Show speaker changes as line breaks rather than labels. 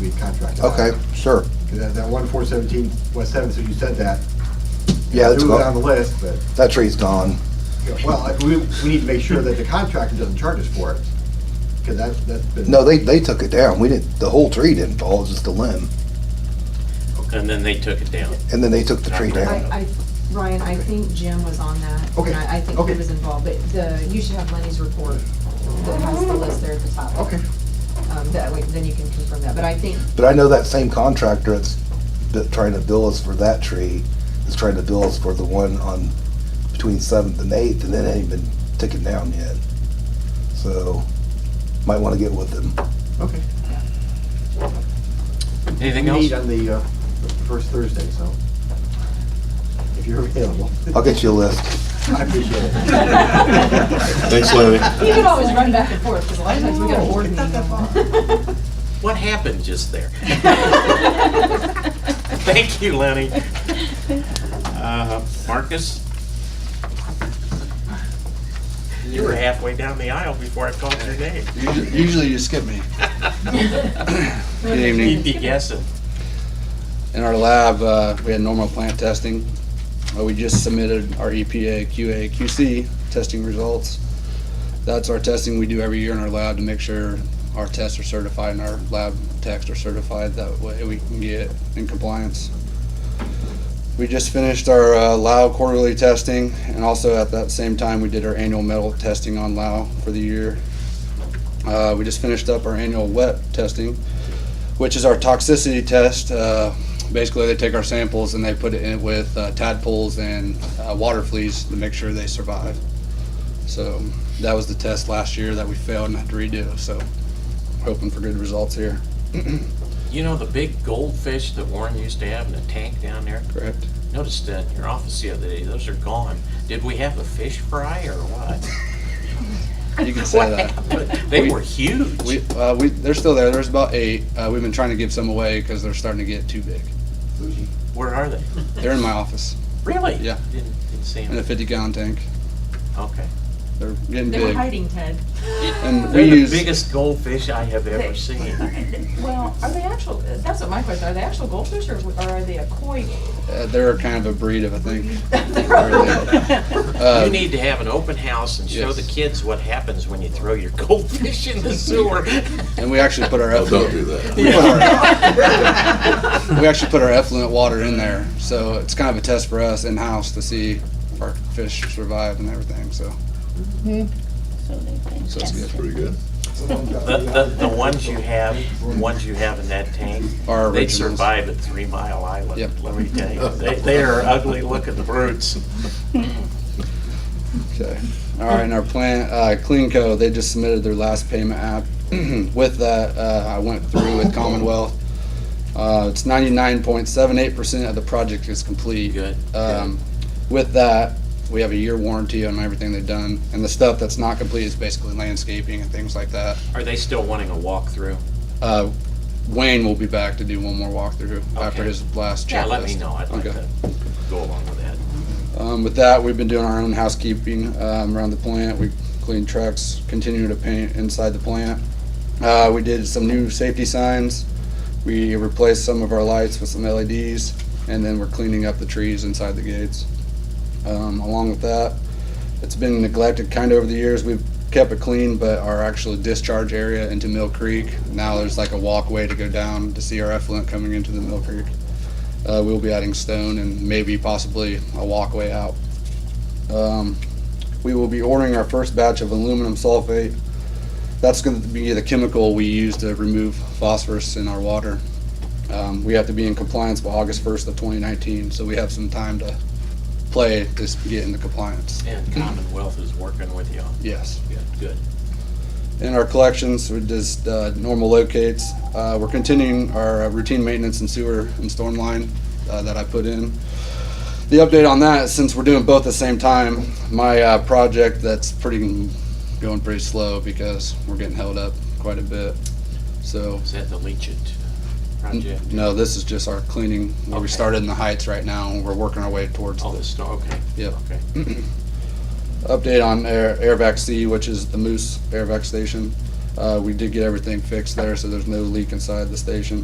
be contracted out.
Okay, sure.
'Cause That, that one four seventeen West Seventh, so you said that.
Yeah, it's
It was on
gone.
the list, but,
That tree's gone.
you know, well, I- we, we need to make sure that the contractor doesn't charge us for it. Cause that's, that's been.
No, they, they took it down. We didn't, the whole tree didn't fall, it was just a limb.
And then they took it down.
And then they took the tree down.
I, I, Ryan, I think Jim was on that.
Okay,
And I I think
okay.
he was involved, but the, you should have Lenny's report that has the list there at the top.
Okay.
Um, that way, then you can confirm that, but I think,
But I know that same contractor that's that trying to bill us for that tree is trying to bill us for the one on between Seventh and Eighth, and it ain't been taken down yet. So, might want to get with them.
Okay.
Anything
We
else?
meet on the, uh, first Thursday, so. If you're available.
I'll get you a list.
I appreciate it.
Thanks, Lenny.
you can always run back and forth, because a lot of times we got a board meeting.
What happened just there? Thank you, Lenny. Uh, Marcus? You were halfway down the aisle before I called your name.
Usually usually you skip me. Good
You'd
evening.
be guessing.
In our lab, uh, we had normal plant testing. Uh, We just submitted our E EPA, QA, QC testing results. That's our testing we do every year in our lab to make sure our tests are certified and our lab techs are certified. That way we can get in compliance. We just finished our uh, Lao quarterly testing and also at that same time, we did our annual metal testing on Lao for the year. Uh, we just finished up our annual wet testing, which is our toxicity test. Uh, basically, they take our samples and they put it in with uh, tadpoles and uh, water fleas to make sure they survive. So that was the test last year that we failed and had to redo. So hoping for good results here.
You know the big goldfish that Warren used to have in the tank down there?
Correct.
Noticed that in your office the other day, those are gone. Did we have a fish fry or what?
You can say that.
They
We-
were huge.
We, uh, we, they're still there. There's about eight. Uh, we've been trying to give some away because they're starting to get too big.
Where are they?
They're in my office
Really?
Yeah.
Didn't, didn't see
in a
them.
50 gallon tank.
Okay.
They're getting
They were
big.
hiding, Ted.
And
They're
we
the
use
biggest goldfish I have ever seen.
Um, Well, are they actual, that's what my question, are they actual goldfish or or are they a koi?
Uh, they're kind of a breed of, I think. Uh,
You need to have an open house and show
Yes.
the kids what happens when you throw your goldfish in the sewer.
and we actually put our
Oh, don't
effluent.
do that.
we, put our- we actually put our effluent water in there, so it's kind of a test for us in house to see if our fish survive and everything. So
So they've been
So it's good.
tested.
Pretty good.
The, the, the ones you have, the ones you have in that tank,
our
they
originals.
survive at Three Mile Island,
Yep.
let me tell you. They, they are ugly looking brutes.
Okay. All right, and our plant, uh, CleanCo, they just submitted their last payment app. With that, uh, I went through with Commonwealth. Uh, it's ninety-nine point seven eight percent of the project is complete.
Good.
Um, with that, we have a year warranty on everything they've done, and the stuff that's not complete is basically landscaping and things like that.
Are they still wanting a walkthrough?
Uh, Wayne will be back to do one more walkthrough after
Okay.
his last checklist.
Yeah, let me know. I'd like
Okay.
to go along with that.
Um, with that, we've been doing our own housekeeping um, around the plant. We cleaned trucks, continue to paint inside the plant. Uh, we did some new safety signs. We replaced some of our lights with some LEDs, and then we're cleaning up the trees inside the gates. Um, along with that, it's been neglected kind of over the years. We've kept it clean, but our actual discharge area into Mill Creek now there's like a walkway to go down to see our effluent coming into the Mill Creek. Uh, we'll be adding stone and maybe possibly a walkway out. Um, we will be ordering our first batch of aluminum sulfate. That's going to be the chemical we use to remove phosphorus in our water. Um, we have to be in compliance by August 1st of 2019, so we have some time to play to s- get into compliance.
And Commonwealth is working with you on
Yes.
Good, good.
In our collections, we just uh, normal locates. Uh, We're continuing our uh, routine maintenance and sewer and storm line uh, that I put in. The update on that, since we're doing both at the same time, my uh, project that's pretty, going pretty slow because we're getting held up quite a bit. So,
Is that the Leachit project?
no, this is just our cleaning. where We
Okay.
started in the heights right now and we're working our way towards
Oh, the
the
star, okay.
Yep.
Okay.
update on Air, AirVac C, which is the Moose AirVac station. Uh, we did get everything fixed there, so there's no leak inside the station.